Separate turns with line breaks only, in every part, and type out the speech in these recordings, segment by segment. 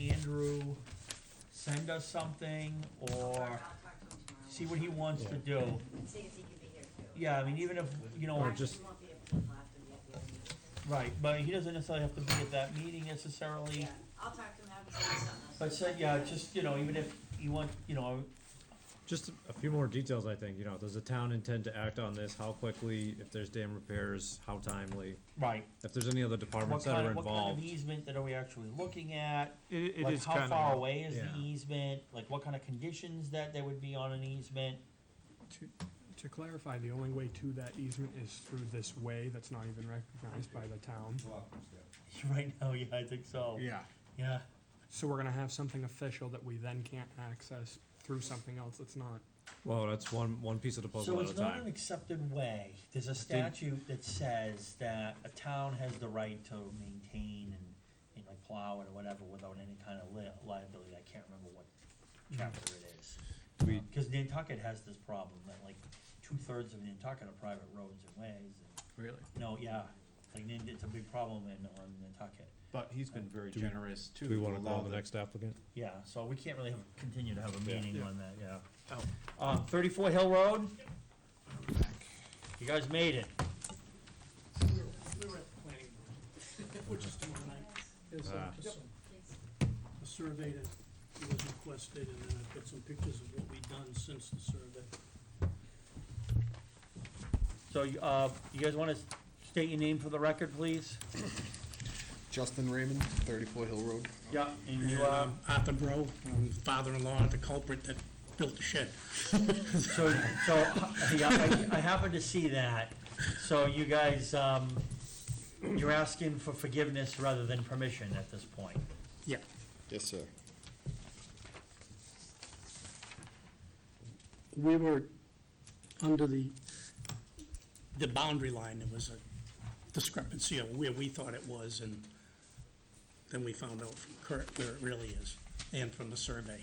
Andrew send us something or
I'll talk to him tomorrow.
see what he wants to do.
See if he can be here too.
Yeah, I mean, even if, you know,
Actually,
just,
he won't be able to laugh and yet the other meeting.
right, but he doesn't necessarily have to be at that meeting necessarily.
Yeah, I'll talk to him, have him send us something else.
But so, yeah, just, you know, even if you want, you know,
Just a few more details, I think, you know, does the town intend to act on this, how quickly, if there's dam repairs, how timely?
right.
If there's any other
What
departments that
kind
are
of, what kind of
involved,
easement that are we actually looking at?
It, it is
Like, how
kind
far
of
away is
yeah.
the easement? Like, what kind of conditions that there would be on an easement?
To, to clarify, the only way to that easement is through this way that's not even recognized by the town.
Right now, yeah, I think so. Yeah.
So we're gonna have something official that we then can't access through something else that's not.
well, that's one, one piece of the
So
puzzle at
it's
a
not an
time.
accepted way. There's a statute that says that a town has the right to maintain and, you know, plow it or whatever without any kind of li- liability. I can't remember what chapter it is.
We-
Because Nantucket has this problem that like two-thirds of Nantucket are private roads and ways. and-
Really?
No, yeah, like Nan- it's a big problem in, on Nantucket.
But he's been very
Do we-
generous too.
Do we wanna
to
go
allow
on the next applicant?
Yeah, so we can't really have, continue to have a meeting on that, yeah.
Oh.
Um, thirty-four Hill Road? You guys made it.
We were at the planning board, which is tomorrow night. It's, uh,
Ah.
just some- A survey that was requested, and then I've got some pictures of what we've done since the survey.
So, uh, you guys wanna state your name for the record, please?
Justin Raymond, 34 Hill Road.
Yeah. And you,
And,
uh,
um, Arthur Bro, um, father-in-law, the culprit that built the shed.
so, so, yeah, I, I happened to see that. So you guys, um, you're asking for forgiveness rather than permission at this point.
Yeah.
Yes, sir.
We were under the, the boundary line, there was a discrepancy of where we thought it was, and then we found out from Kurt where it really is, and from the survey.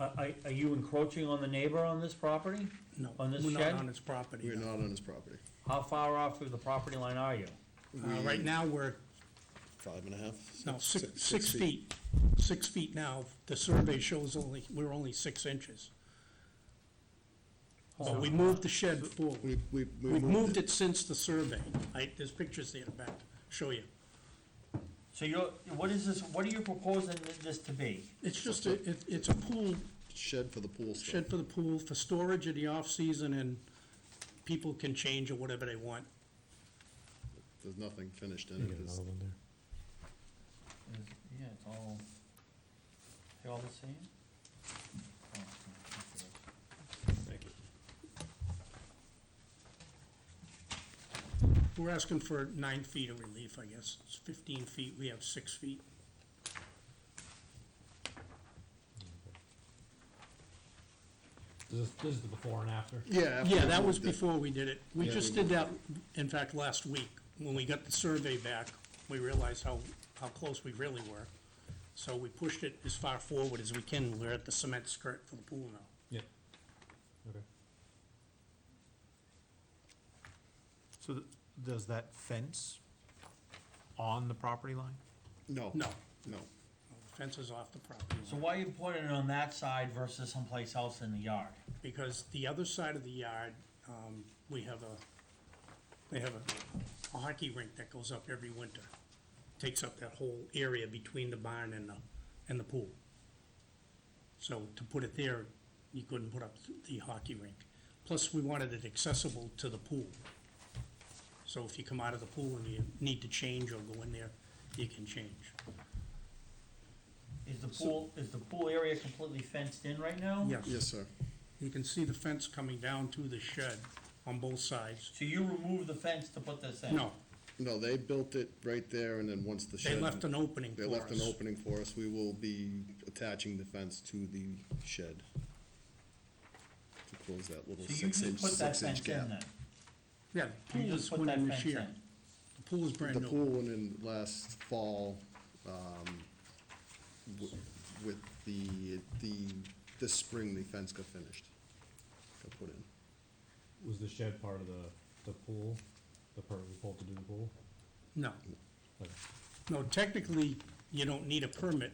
Are, are- are you encroaching on the neighbor on this property?
No,
On this
we're not
shed?
on its property.
We're not on his property.
How far off of the property line are you?
Uh, Right now, we're,
Five and a half?
no, six, six feet, six feet now. The survey shows only, we're only six inches. But we moved the shed forward.
We, we, we
We've moved it since the survey. I, there's pictures there to back, show you.
So you're, what is this, what are you proposing this to be?
It's just, a it- it's a pool,
Shed for the pool stuff.
shed for the pool, for storage in the off-season, and people can change or whatever they want.
There's nothing finished in
You
it.
get
There's-
another one there.
Yeah, it's all, they all the same?
Thank you.
We're asking for nine feet of relief, I guess. It's 15 feet, we have six feet.
This is, this is the before and after.
Yeah. after
Yeah,
we
that was
moved it.
before we did it. We
Yeah,
just
we
did
moved
that, in fact, last week. When we got the survey back, we realized how, how close we really were. So we pushed it as far forward as we can. We're at the cement skirt for the pool now.
Yeah. Okay.
So th- does that fence on the property line?
No.
No.
No.
Fence is off the property
So
line.
why are you putting it on that side versus someplace else in the yard?
Because the other side of the yard, um, we have a, they have a a hockey rink that goes up every winter. Takes up that whole area between the barn and the, and the pool. So to put it there, you couldn't put up the hockey rink. Plus, we wanted it accessible to the pool. So if you come out of the pool and you need to change or go in there, you can change.
Is the pool, is the pool area completely fenced in right now?
Yes, sir.
You can see the fence coming down to the shed on both sides.
So you removed the fence to put this in?
No,
No, they built it right there, and then once the shed.
they left an opening for
They
us.
left an opening for us. We will be attaching the fence to the shed to close that little
So you
six-inch,
just put that
six-inch
fence in then?
gap.
Yeah, the
You
pool
just
is
put
went
that
in
fence
this year.
in?
The pool is brand
The
new.
pool went in last fall, um, w- with the, the, this spring, the fence got finished, got put in.
Was the shed part of the, the pool, the part we pulled to do the pool?
No,
Okay.
no, technically, you don't need a permit